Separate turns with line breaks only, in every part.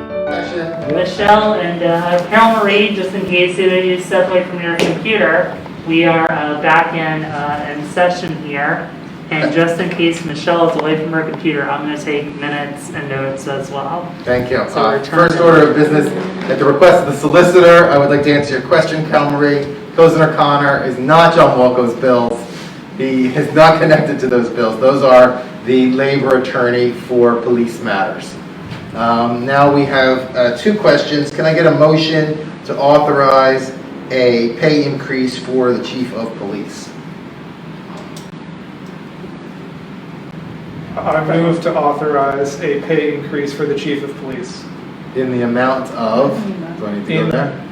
Michelle.
Michelle and uh, apparently, just in case either of you step away from your computer, we are uh, back in, uh, in session here. And just in case Michelle is away from her computer, I'm going to take minutes and notes as well.
Thank you.
So
Uh,
we're turning-
First order of business, at the request of the solicitor, I would like to answer your question, Cal Marie. Cozen O'Connor is not John Walco's bills. He is not connected to those bills. Those are the labor attorney for police matters. Um, Now we have uh, two questions. Can I get a motion to authorize a pay increase for the chief of police?
I move to authorize a pay increase for the chief of police.
In the amount of, do I need to go
In-
there?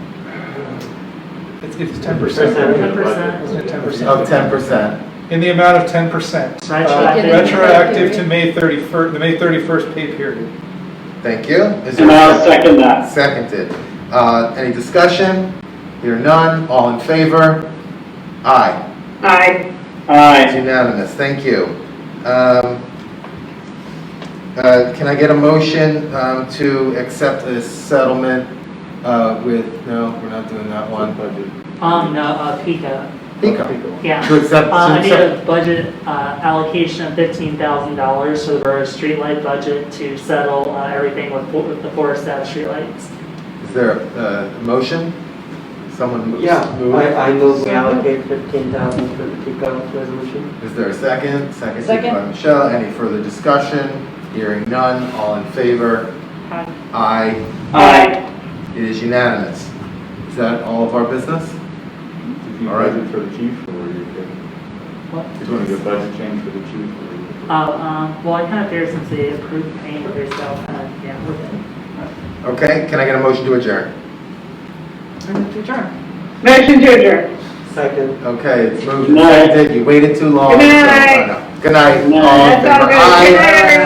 It's, it's ten percent.
10%.
Wasn't it ten
Of
percent?
10%.
In the amount of ten percent. Uh,
Retroactive.
Retroactive to May thirty-first, the May thirty-first pay period.
Thank you. Is there-
And I'll second that.
Seconded. Uh, Any discussion? Hear none, all in favor? Aye.
Aye.
It's
Aye.
unanimous, thank you. Um, uh, Can I get a motion um, to accept this settlement uh, with, no, we're not doing that one.
Um, no, uh, Pico,
Pico.
yeah.
To accept,
Uh, I need
to
a budget uh, allocation of fifteen thousand dollars for the borough's streetlight budget to settle uh, everything with fo- with the Forest Ave streetlights.
accept- is there a uh, motion? Someone moves?
Yeah,
move it.
I, I move we allocate fifteen thousand for the kickoff resolution.
Is there a second? Second.
Second.
by Michelle, any further discussion? Hearing none, all in favor? Aye.
Aye.
It is unanimous. Is that all of our business?
Did you
All right.
budget for the chief or were you good?
What?
Did you want to do a budget change for the chief or were you good?
Uh, um, well, I kind of fear since they approved the paying for yourself, uh, yeah, we're good.
Okay, can I get a motion to adjourn?
Move to adjourn.
Motion to adjourn.
Second.
Okay, it's moved
Good
and
night.
seconded, you waited too long.
Good night.
Good night.
Good night.
all in
That's all
favor?
good. Good
Aye.
night, everyone.